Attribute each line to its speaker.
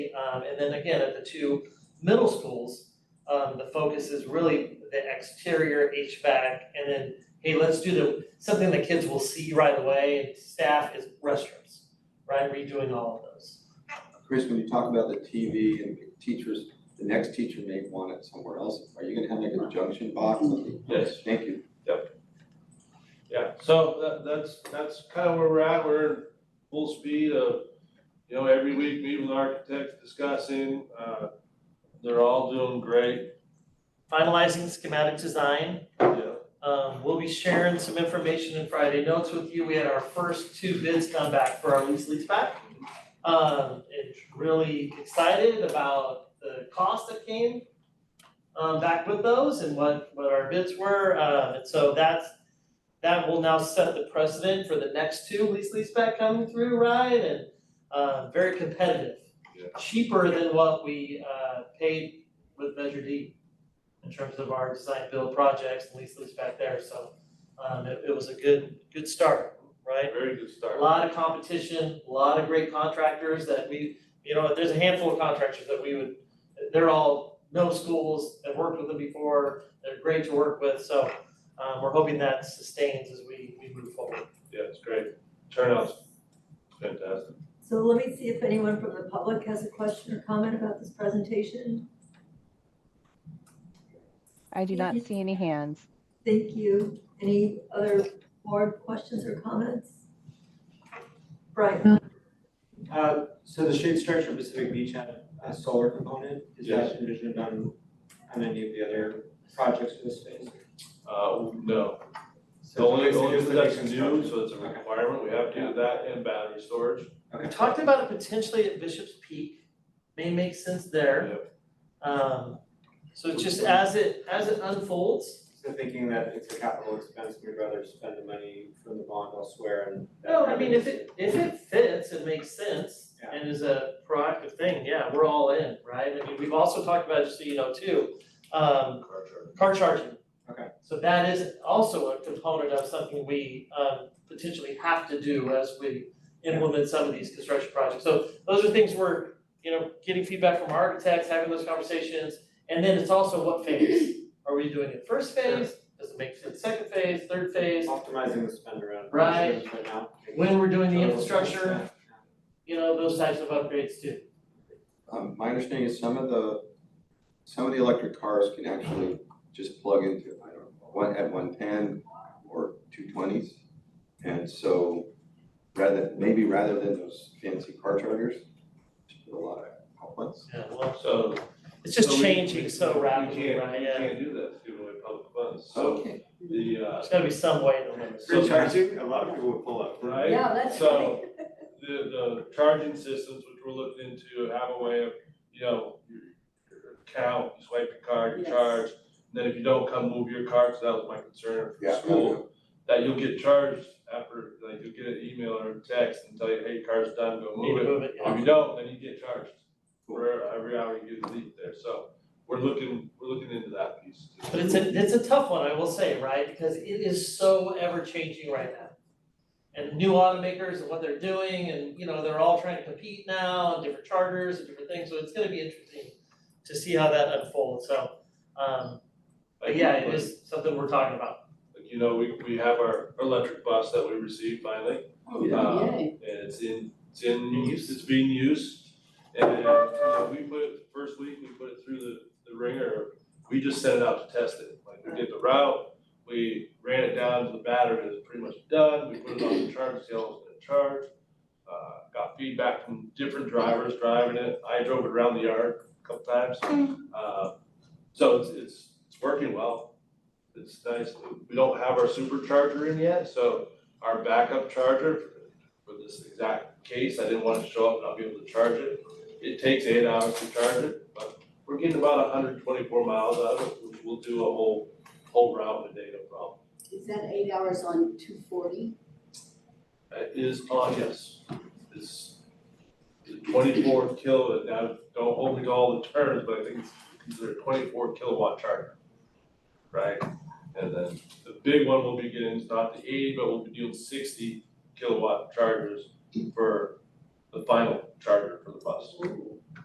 Speaker 1: Um, and then again, at the two middle schools, um, the focus is really the exterior HVAC and then, hey, let's do the, something the kids will see right away and staff is restrooms, right? Redoing all of those.
Speaker 2: Chris, when you talk about the TV and teachers, the next teacher may want it somewhere else. Are you gonna have like a junction box?
Speaker 3: Yes.
Speaker 2: Thank you.
Speaker 3: Yeah, so that, that's, that's kind of where we're at, we're in full speed of, you know, every week meeting with architects, discussing, uh, they're all doing great,
Speaker 1: Finalizing schematic design,
Speaker 3: you know.
Speaker 1: Um, we'll be sharing some information in Friday notes with you. We had our first two bids come back for our lease lease back. Um, it's really excited about the cost that came um, back with those and what, what our bids were. Uh, and so that's, that will now set the precedent for the next two lease lease back coming through, right? And, uh, very competitive.
Speaker 3: Yeah.
Speaker 1: Cheaper than what we, uh, paid with Measure D in terms of our design build projects and lease lease back there, so um it it was a good, good start, right?
Speaker 3: Very good start.
Speaker 1: A lot of competition, a lot of great contractors that we, you know, there's a handful of contractors that we would, they're all no schools, have worked with them before, they're great to work with, so um we're hoping that sustains as we we move forward.
Speaker 3: Yeah, it's great, turnout's fantastic.
Speaker 4: So let me see if anyone from the public has a question or comment about this presentation.
Speaker 5: I do not
Speaker 4: Mhm.
Speaker 5: see any hands.
Speaker 4: Thank you. Any other board questions or comments? Brian,
Speaker 6: Uh, so the shade structure in Pacific Beach had a solar component, is that envisioned on, on any of the other projects for the space?
Speaker 3: Uh, no, the
Speaker 6: So
Speaker 3: only,
Speaker 6: it's
Speaker 3: only
Speaker 6: just
Speaker 3: thing
Speaker 6: the
Speaker 3: that's
Speaker 6: basic
Speaker 3: new,
Speaker 6: structure.
Speaker 3: so it's a requirement, we have to do that and battery storage.
Speaker 1: We talked about it potentially at Bishop's Peak, may make sense there. Um so just as it, as it unfolds,
Speaker 6: So thinking that it's a capital expense, we'd rather spend the money from the bond elsewhere and. that
Speaker 1: No, I mean, if
Speaker 6: revenue-
Speaker 1: it, if it fits and makes sense
Speaker 6: Yeah.
Speaker 1: and is a proactive thing, yeah, we're all in, right? I mean, we've also talked about, just so you know, too, um,
Speaker 3: Car charger.
Speaker 1: car charging.
Speaker 6: Okay.
Speaker 1: So that is also a component of something we, um, potentially have to do as we implement some of these construction projects. So those are things we're, you know, getting feedback from architects, having those conversations. And then it's also what phase, are we doing it first phase, does it make sense, second phase, third phase?
Speaker 6: Optimizing the spend around.
Speaker 1: Right.
Speaker 6: initiatives Right now.
Speaker 1: When we're doing the
Speaker 6: Total
Speaker 1: infrastructure,
Speaker 6: expense, yeah.
Speaker 1: you know, those types of upgrades too.
Speaker 2: Um, my understanding is some of the, some of the electric cars can actually just plug into, I don't know, one, at one ten or two twenties. And so rather, maybe rather than those fancy car chargers, just put a lot of outlets.
Speaker 1: Yeah, well,
Speaker 3: So.
Speaker 1: it's just
Speaker 3: so we-
Speaker 1: changing so rapidly,
Speaker 3: We
Speaker 1: right,
Speaker 3: can't, we
Speaker 1: yeah,
Speaker 3: can't do that, giving away public funds, so
Speaker 2: Okay.
Speaker 3: the, uh,
Speaker 1: there's gotta be some way to limit.
Speaker 3: So-
Speaker 6: Free charging, a lot of people would pull up.
Speaker 3: right?
Speaker 4: yeah, that's
Speaker 3: So-
Speaker 4: right.
Speaker 3: the, the charging systems, which we're looking into, have a way of, you know, your your account, you swipe your card, you
Speaker 4: Yes.
Speaker 3: charge. And Then if you don't come move your card, so that was my concern for
Speaker 2: Yeah.
Speaker 3: school, that you'll get charged after, like, you'll get an email or a text and tell you, hey, your car's done, go
Speaker 1: Need
Speaker 3: move
Speaker 1: to
Speaker 3: it.
Speaker 1: move it, yeah.
Speaker 3: If you don't, then you get charged for every hour you get leave there, so we're looking, we're looking into that piece too.
Speaker 1: But it's a, it's a tough one, I will say, right, because it is so ever changing right now. And new automakers and what they're doing, and you know, they're all trying to compete now, and different chargers and different things, so it's gonna be interesting to see how that unfolds, so, um, but
Speaker 3: Like,
Speaker 1: yeah, it
Speaker 3: like-
Speaker 1: is something we're talking about.
Speaker 3: Like, you know, we, we have our electric bus that we received finally.
Speaker 2: Oh, yeah.
Speaker 3: Um, and it's in, it's in use, it's being used. And, you know, we put it, first week, we put it through the, the ringer, we just sent it out to test it. Like, we did the route, we ran it down to the battery, it was pretty much done, we put it on the charge, see how it was gonna charge. Uh, got feedback from different drivers driving it, I drove it around the yard a couple times. Uh, so it's, it's, it's working well. It's nice, we don't have our supercharger in yet, so our backup charger for this exact case, I didn't want to show up and not be able to charge it. It takes eight hours to charge it, but we're getting about hundred and twenty-four miles out of it, We'll- we'll do a whole, whole route in a day, no problem.
Speaker 7: Is that eight hours on two forty?
Speaker 3: That Uh, is on, yes, it's twenty-four kilo, now, don't hold me to all the terms, but I think it's considered twenty-four kilowatt charger. Right, and then the big one we'll be getting is not the eighty, but we'll be doing sixty kilowatt chargers for the final charger for the bus.
Speaker 7: Ooh.